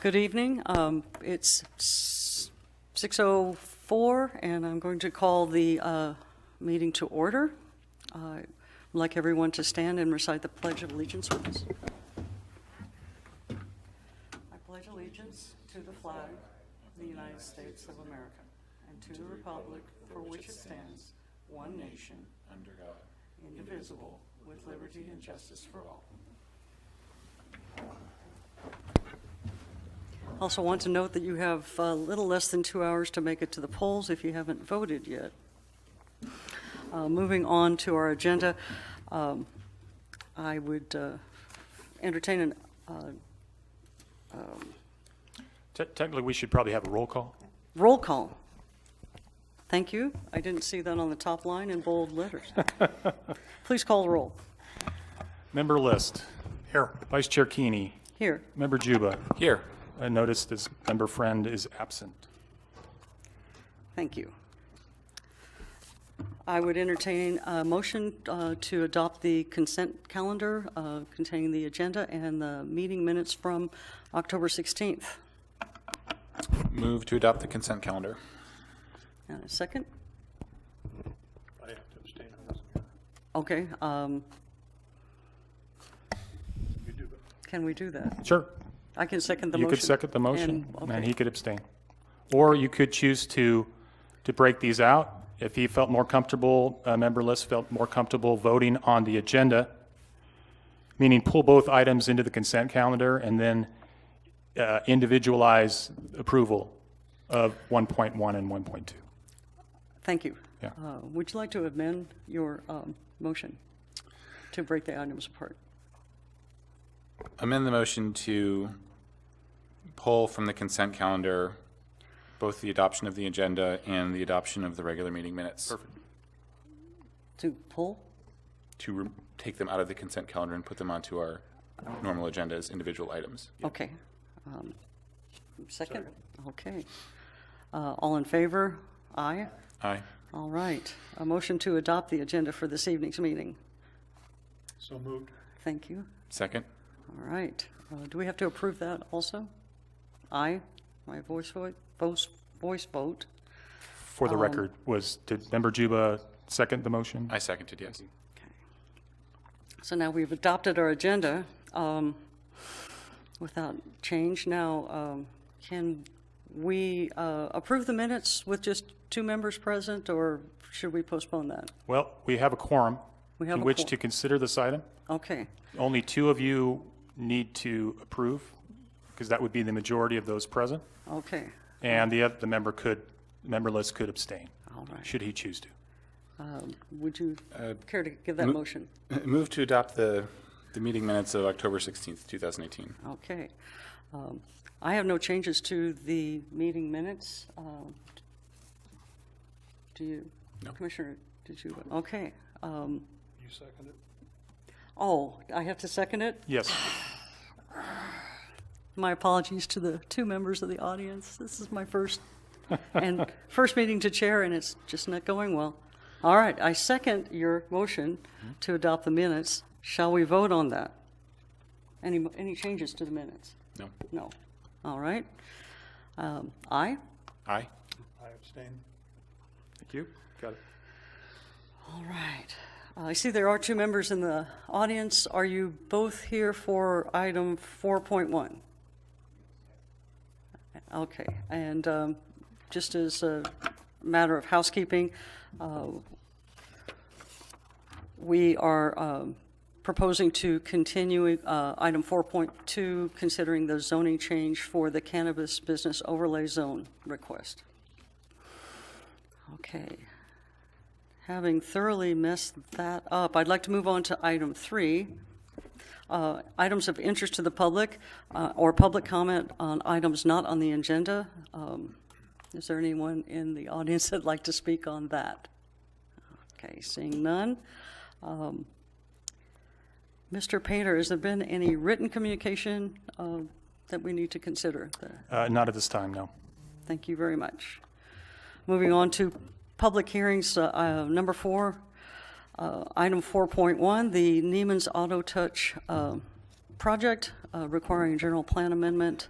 Good evening. Um, It's s- 6:04, and I'm going to call the uh, meeting to order. Uh, I'd like everyone to stand and recite the Pledge of Allegiance with us. I pledge allegiance to the flag of the United States of America and to the republic for which it stands, one nation, under God, indivisible, with liberty and justice for all. Also want to note that you have a little less than two hours to make it to the polls if you haven't voted yet. Uh, Moving on to our agenda, um, I would uh, entertain an, uh, Te- Technically, we should probably have a roll call. Roll call. Thank you. I didn't see that on the top line in bold letters. Please call the roll. Member List. Here. Vice Chair Keeney. Here. Member Juba. Here. I noticed this member friend is absent. Thank you. I would entertain a motion uh, to adopt the consent calendar uh, containing the agenda and the meeting minutes from October 16th. Move to adopt the consent calendar. And a second? I have to abstain on this. Okay. um, You do, but Can we do that? Sure. I can second the You motion. could second the motion, And- and okay. he could abstain. Or you could choose to, to break these out. If he felt more comfortable, uh, Member List felt more comfortable voting on the agenda, meaning pull both items into the consent calendar and then uh, individualize approval of 1.1 and 1.2. Thank you. Yeah. Uh, Would you like to amend your um, motion to break the items apart? Amend the motion to pull from the consent calendar both the adoption of the agenda and the adoption of the regular meeting minutes. Perfect. To pull? To re- take them out of the consent calendar and put them onto our normal agenda as individual items. Okay. Um, Second? Okay. Uh, All in favor? Aye. Aye. All right. A motion to adopt the agenda for this evening's meeting. so moved. Thank you. Second? All right. Uh, Do we have to approve that also? Aye? My voice vote, voice voice vote? for Um, the record was, did Member Juba second the motion? I seconded, yes. So now we've adopted our agenda um, without change. Now, um, can we uh, approve the minutes with just two members present, or should we postpone that? Well, we have a quorum We have in a which quor- to consider this item. Okay, Only two of you need to approve, because that would be the majority of those present, okay, and the, oth- the member could, member list could abstain, all right. should he choose to. Would you care to give that motion? Move to adopt the, the meeting minutes of October 16th, 2018. Okay. Um, I have no changes to the meeting minutes. Um, Do you? No. Commissioner, did you? Okay. Um, You second it? Oh, I have to second it? Yes, My apologies to the two members of the audience. This is my first and first meeting to chair, and it's just not going well. All right, I second your motion to adopt the minutes. Shall we vote on that? Any mo- any changes to the minutes? No? No. All right. Um, aye. Aye? I abstain. thank you, got it. All right. Uh, I see there are two members in the audience. Are you both here for item 4.1? Okay, and um, just as a matter of housekeeping, uh, we are um, proposing to continue uh, item 4.2, considering the zoning change for the cannabis business overlay zone request. Okay. Having thoroughly messed that up, I'd like to move on to item three. Uh, Items of interest to the public uh, or public comment on items not on the agenda. Um, Is there anyone in the audience that'd like to speak on that? Okay, seeing none. Um, Mr. Painter, has there been any written communication uh, that we need to consider there? Uh, not at this time, no. Thank you very much. Moving on to public hearings, uh, uh, number four, uh, item 4.1, the uh, Neiman's Auto Touch um, project uh, requiring general plan amendment.